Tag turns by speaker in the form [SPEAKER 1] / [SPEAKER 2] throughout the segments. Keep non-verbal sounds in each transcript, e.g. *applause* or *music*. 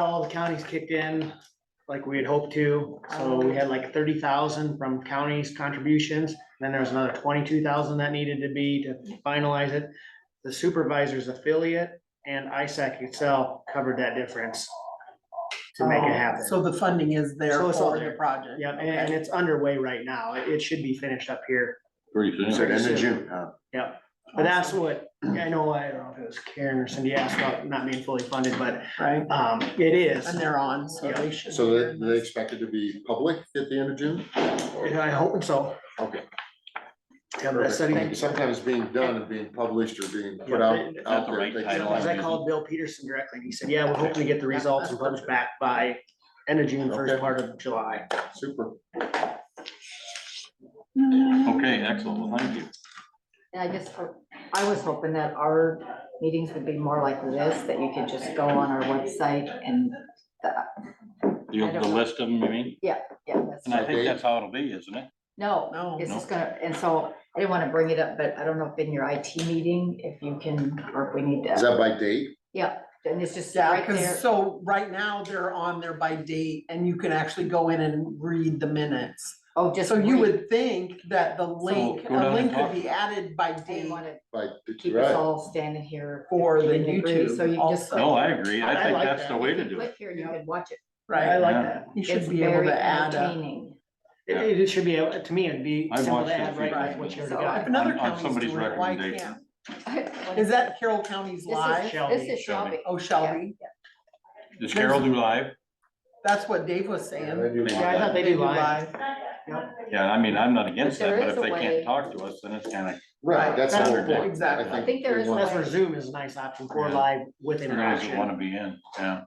[SPEAKER 1] all the counties kicked in like we had hoped to. So
[SPEAKER 2] Oh.
[SPEAKER 1] we had like thirty thousand from counties contributions. Then there was another twenty-two thousand that needed to be to finalize it. The supervisor's affiliate and ISAC itself covered that difference to make
[SPEAKER 3] Oh.
[SPEAKER 1] it happen.
[SPEAKER 2] Oh. So the funding is there
[SPEAKER 1] So it's all
[SPEAKER 2] for the
[SPEAKER 1] there.
[SPEAKER 2] project.
[SPEAKER 1] Yep, and- and
[SPEAKER 2] okay.
[SPEAKER 1] it's underway right now. It, it should be finished up here.
[SPEAKER 4] Pretty soon.
[SPEAKER 5] So end
[SPEAKER 1] Soon.
[SPEAKER 5] of June, huh?
[SPEAKER 1] Yep, but that's what, I know, I don't know if it was Karen or Cindy asked about not being fully funded, but,
[SPEAKER 2] Right,
[SPEAKER 1] um, it is.
[SPEAKER 2] and they're on, so
[SPEAKER 1] Yeah.
[SPEAKER 2] they should.
[SPEAKER 5] So
[SPEAKER 2] be
[SPEAKER 5] they,
[SPEAKER 2] in
[SPEAKER 5] they
[SPEAKER 2] this.
[SPEAKER 5] expect it to be public at the end of June?
[SPEAKER 1] Yeah, I hope so.
[SPEAKER 5] Okay.
[SPEAKER 1] Yeah, but that study,
[SPEAKER 5] Perfect. Sometimes being done and being published or being put
[SPEAKER 1] Yeah,
[SPEAKER 5] out.
[SPEAKER 1] they-
[SPEAKER 4] That's the
[SPEAKER 5] out there
[SPEAKER 4] right
[SPEAKER 5] takes
[SPEAKER 4] title.
[SPEAKER 5] time.
[SPEAKER 1] because I called Bill Peterson directly, and he said, yeah, we're hoping to get the results and published back by end of June, first
[SPEAKER 5] Okay.
[SPEAKER 1] part of July.
[SPEAKER 5] Super.
[SPEAKER 4] Okay, excellent, well, thank you.
[SPEAKER 3] Yeah, I just, hope- I was hoping that our meetings would be more like this, that you could just go on our website and,
[SPEAKER 4] You have the list of them, you mean?
[SPEAKER 3] yeah, that's,
[SPEAKER 4] And I think that's how it'll be, isn't it?
[SPEAKER 3] no,
[SPEAKER 2] No.
[SPEAKER 3] it's just gonna, and so I didn't wanna bring it up, but I don't know if in your IT meeting, if you can, or if we need
[SPEAKER 5] Is
[SPEAKER 3] to.
[SPEAKER 5] that by date?
[SPEAKER 3] Yeah, and it's just
[SPEAKER 2] Yeah,
[SPEAKER 3] right there.
[SPEAKER 2] cause so right now they're on there by date and you can actually go in and read the minutes.
[SPEAKER 3] Oh, just.
[SPEAKER 2] So you
[SPEAKER 3] read.
[SPEAKER 2] would think that the link,
[SPEAKER 4] go down
[SPEAKER 2] a
[SPEAKER 4] and
[SPEAKER 2] link
[SPEAKER 4] talk.
[SPEAKER 2] could be added by
[SPEAKER 3] I didn't
[SPEAKER 2] date.
[SPEAKER 3] wanna
[SPEAKER 5] By,
[SPEAKER 3] keep us
[SPEAKER 5] right,
[SPEAKER 3] all standing here.
[SPEAKER 2] For the
[SPEAKER 3] in degree, So you
[SPEAKER 2] YouTube
[SPEAKER 3] just.
[SPEAKER 2] also.
[SPEAKER 4] No, I agree, I
[SPEAKER 1] I
[SPEAKER 4] think
[SPEAKER 1] like
[SPEAKER 4] that's the
[SPEAKER 1] that.
[SPEAKER 4] way to
[SPEAKER 3] you
[SPEAKER 4] do it.
[SPEAKER 3] Click here, and you can watch it.
[SPEAKER 1] I
[SPEAKER 2] Right,
[SPEAKER 1] like
[SPEAKER 4] Yeah.
[SPEAKER 1] that.
[SPEAKER 2] you
[SPEAKER 3] It's
[SPEAKER 2] should be able
[SPEAKER 3] very
[SPEAKER 2] to add a.
[SPEAKER 3] entertaining. *laughs*
[SPEAKER 4] Yeah.
[SPEAKER 1] It, it should be, a- to me, it'd be
[SPEAKER 4] I
[SPEAKER 1] simple
[SPEAKER 4] watched
[SPEAKER 1] to
[SPEAKER 4] it a
[SPEAKER 1] add
[SPEAKER 4] few
[SPEAKER 1] right
[SPEAKER 2] times.
[SPEAKER 1] with what you already
[SPEAKER 3] So
[SPEAKER 2] If
[SPEAKER 1] got.
[SPEAKER 2] another
[SPEAKER 4] on
[SPEAKER 2] county's
[SPEAKER 4] somebody's
[SPEAKER 2] doing it, why
[SPEAKER 4] recommendation.
[SPEAKER 2] can't? Is that Carroll County's
[SPEAKER 3] This is-
[SPEAKER 2] live?
[SPEAKER 1] Shelby.
[SPEAKER 3] This is
[SPEAKER 4] Shelby.
[SPEAKER 3] Shelby.
[SPEAKER 2] Oh, Shelby,
[SPEAKER 4] Does Carol do live?
[SPEAKER 2] that's what Dave was
[SPEAKER 5] and then
[SPEAKER 2] saying.
[SPEAKER 5] you-
[SPEAKER 4] Maybe.
[SPEAKER 1] Yeah, I thought they do live.
[SPEAKER 4] Yeah, I mean, I'm not against
[SPEAKER 3] But
[SPEAKER 4] that,
[SPEAKER 3] there
[SPEAKER 4] but
[SPEAKER 3] is
[SPEAKER 4] if
[SPEAKER 3] a
[SPEAKER 4] they
[SPEAKER 3] way-
[SPEAKER 4] can't talk to us, then it's kind of,
[SPEAKER 5] Right, that's the whole
[SPEAKER 1] Right.
[SPEAKER 5] point.
[SPEAKER 2] Exactly.
[SPEAKER 3] I think there
[SPEAKER 5] we
[SPEAKER 3] is a
[SPEAKER 5] want-
[SPEAKER 1] That's where Zoom is a nice option for
[SPEAKER 4] Yeah.
[SPEAKER 1] live with
[SPEAKER 4] everybody doesn't
[SPEAKER 1] interaction.
[SPEAKER 4] want to be in, yeah.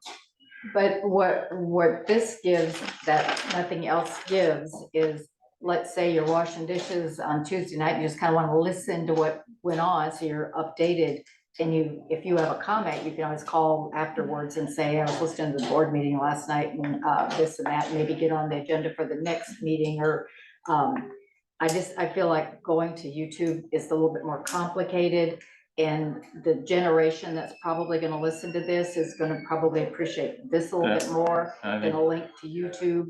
[SPEAKER 3] But what, what this gives that nothing else gives is, let's say you're washing dishes on Tuesday night, you just kind of want to listen to what went on, so you're updated. And you, if you have a comment, you can always call afterwards and say, I was listening to the board meeting last night and uh, this and that, maybe get on the agenda for the next meeting or, um, I just, I feel like going to YouTube is a little bit more complicated. And the generation that's probably gonna listen to this is gonna probably appreciate this a little bit more
[SPEAKER 4] I
[SPEAKER 3] than
[SPEAKER 4] think,
[SPEAKER 3] a link to YouTube.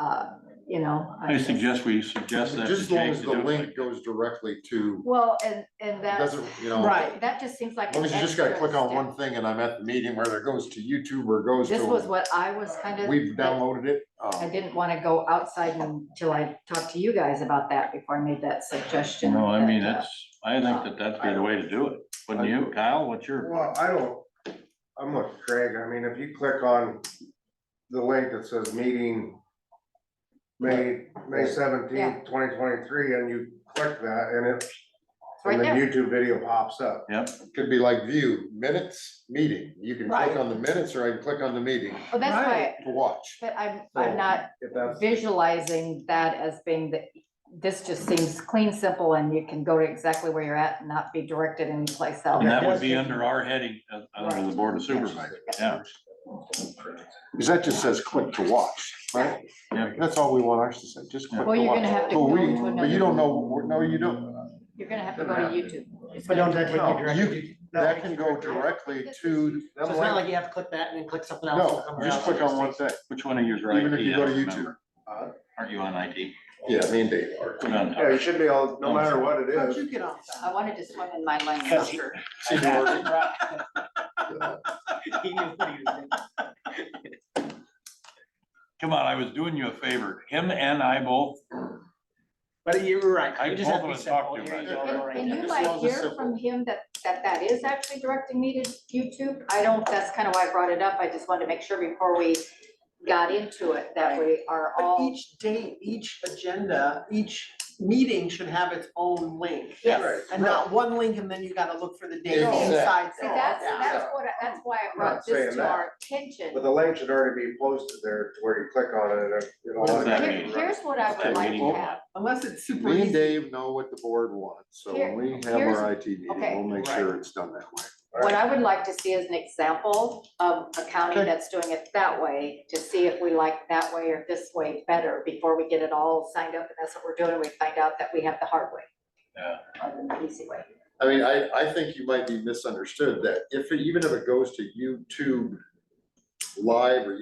[SPEAKER 3] Uh, you know.
[SPEAKER 4] I
[SPEAKER 3] just-
[SPEAKER 4] suggest we suggest that to
[SPEAKER 5] Just as long
[SPEAKER 4] Jake
[SPEAKER 5] as
[SPEAKER 4] to
[SPEAKER 5] the
[SPEAKER 4] do it
[SPEAKER 5] link
[SPEAKER 4] like.
[SPEAKER 5] goes directly to,
[SPEAKER 3] Well, and, and that's,
[SPEAKER 5] doesn't, you know,
[SPEAKER 2] Right.
[SPEAKER 3] that just seems like.
[SPEAKER 5] as long
[SPEAKER 3] an
[SPEAKER 5] as you just gotta
[SPEAKER 3] extra
[SPEAKER 5] click on
[SPEAKER 3] step.
[SPEAKER 5] one thing and I'm at the meeting, whether it goes to YouTube or goes
[SPEAKER 3] This was
[SPEAKER 5] to,
[SPEAKER 3] what I was kind of.
[SPEAKER 5] we've downloaded it. um,
[SPEAKER 3] I didn't want to go outside until I talked to you guys about that before I made that suggestion.
[SPEAKER 4] No, I mean,
[SPEAKER 3] that, uh,
[SPEAKER 4] that's, I think that that'd be the way to do it, wouldn't you, Kyle, what's your?
[SPEAKER 6] Well, I don't, I'm with Craig, I mean, if you click on the link that says meeting May, May
[SPEAKER 3] Yeah.
[SPEAKER 6] seventeenth, twenty twenty-three, and you click that, and it,
[SPEAKER 3] It's right
[SPEAKER 6] and the
[SPEAKER 3] there.
[SPEAKER 6] YouTube video pops up.
[SPEAKER 5] Could be like view minutes, meeting. You can
[SPEAKER 2] Right.
[SPEAKER 5] click on the minutes or I can click on the meeting
[SPEAKER 3] Well, Oh, that's why,
[SPEAKER 5] to watch.
[SPEAKER 3] but I'm, I'm not
[SPEAKER 6] If that's,
[SPEAKER 3] visualizing that as being the, this just seems clean, simple, and you can go to exactly where you're at and not be directed anyplace else.
[SPEAKER 4] And that would be under our heading, uh, under the board of supervisors, yeah.
[SPEAKER 5] Cause that just says click to watch, right?
[SPEAKER 4] Yeah.
[SPEAKER 5] That's all we want ours to say, just click to watch.
[SPEAKER 3] Well, you're gonna have
[SPEAKER 5] But
[SPEAKER 3] to go
[SPEAKER 5] we-
[SPEAKER 3] to
[SPEAKER 5] But
[SPEAKER 3] another-
[SPEAKER 5] you don't know, no, you don't.
[SPEAKER 3] You're gonna have to go to YouTube. It's
[SPEAKER 1] But
[SPEAKER 3] gonna
[SPEAKER 1] don't that
[SPEAKER 3] be-
[SPEAKER 1] take you directly?
[SPEAKER 5] You, that can go directly to.
[SPEAKER 1] So it's not like you have to click that and then click something else. and
[SPEAKER 5] No,
[SPEAKER 1] something
[SPEAKER 5] just
[SPEAKER 1] else.
[SPEAKER 5] click
[SPEAKER 1] *laughs*
[SPEAKER 5] on one thing,
[SPEAKER 4] Which one of yours are IT?
[SPEAKER 5] even if you go to
[SPEAKER 4] I don't
[SPEAKER 5] YouTube.
[SPEAKER 4] remember. Uh, Aren't you on IT?
[SPEAKER 5] Yeah, me and Dave are.
[SPEAKER 4] Put on top.
[SPEAKER 6] yeah, it should be all, no matter
[SPEAKER 4] *laughs*
[SPEAKER 6] what it
[SPEAKER 2] How'd you
[SPEAKER 6] is,
[SPEAKER 2] get off
[SPEAKER 3] I
[SPEAKER 2] that?
[SPEAKER 3] wanted to swim in my lane.
[SPEAKER 1] Because-
[SPEAKER 5] See, we're-
[SPEAKER 1] He knew what he was doing.
[SPEAKER 4] Come on, I was doing you a favor. Him and I both,
[SPEAKER 1] But you were right.
[SPEAKER 4] I
[SPEAKER 1] You just have to be
[SPEAKER 4] both of us talked
[SPEAKER 1] simple.
[SPEAKER 4] to
[SPEAKER 1] Here
[SPEAKER 4] him
[SPEAKER 1] you go,
[SPEAKER 3] And
[SPEAKER 1] right
[SPEAKER 3] and
[SPEAKER 1] there.
[SPEAKER 3] you
[SPEAKER 5] Just
[SPEAKER 3] might
[SPEAKER 5] as long as it's
[SPEAKER 3] hear from him that, that that is actually directing me to YouTube. I don't, that's kind of why I brought it up. I just wanted to make sure before we got into it, that we are
[SPEAKER 2] But
[SPEAKER 3] all,
[SPEAKER 2] each date, each agenda, each meeting should have its own link.
[SPEAKER 3] yes.
[SPEAKER 2] And not one link and then you gotta look for the date
[SPEAKER 5] Exactly.
[SPEAKER 2] inside.
[SPEAKER 3] See, that's,
[SPEAKER 2] that.
[SPEAKER 3] that's what, I- that's why I brought
[SPEAKER 6] Not
[SPEAKER 3] this
[SPEAKER 6] saying
[SPEAKER 3] to
[SPEAKER 6] that.
[SPEAKER 3] our attention.
[SPEAKER 6] but the link should already be posted there to where you click on it and it'll.
[SPEAKER 4] What does that
[SPEAKER 3] Here-
[SPEAKER 4] mean?
[SPEAKER 3] Here's what I
[SPEAKER 4] Okay,
[SPEAKER 3] would like
[SPEAKER 4] meeting.
[SPEAKER 3] to have.
[SPEAKER 2] Unless it's super
[SPEAKER 5] Me and
[SPEAKER 2] easy.
[SPEAKER 5] Dave know what the board wants, so when we have
[SPEAKER 3] Here's-
[SPEAKER 5] our IT meeting,
[SPEAKER 3] okay.
[SPEAKER 5] we'll make sure it's done that way.
[SPEAKER 3] What I would like to see is an example of a county
[SPEAKER 5] Okay.
[SPEAKER 3] that's doing it that way, to see if we like that way or this way better before we get it all signed up, and that's what we're doing, we find out that we have the hard way.
[SPEAKER 4] Yeah.
[SPEAKER 3] Or the easy way.
[SPEAKER 5] I mean, I, I think you might be misunderstood that if, it- even if it goes to YouTube live or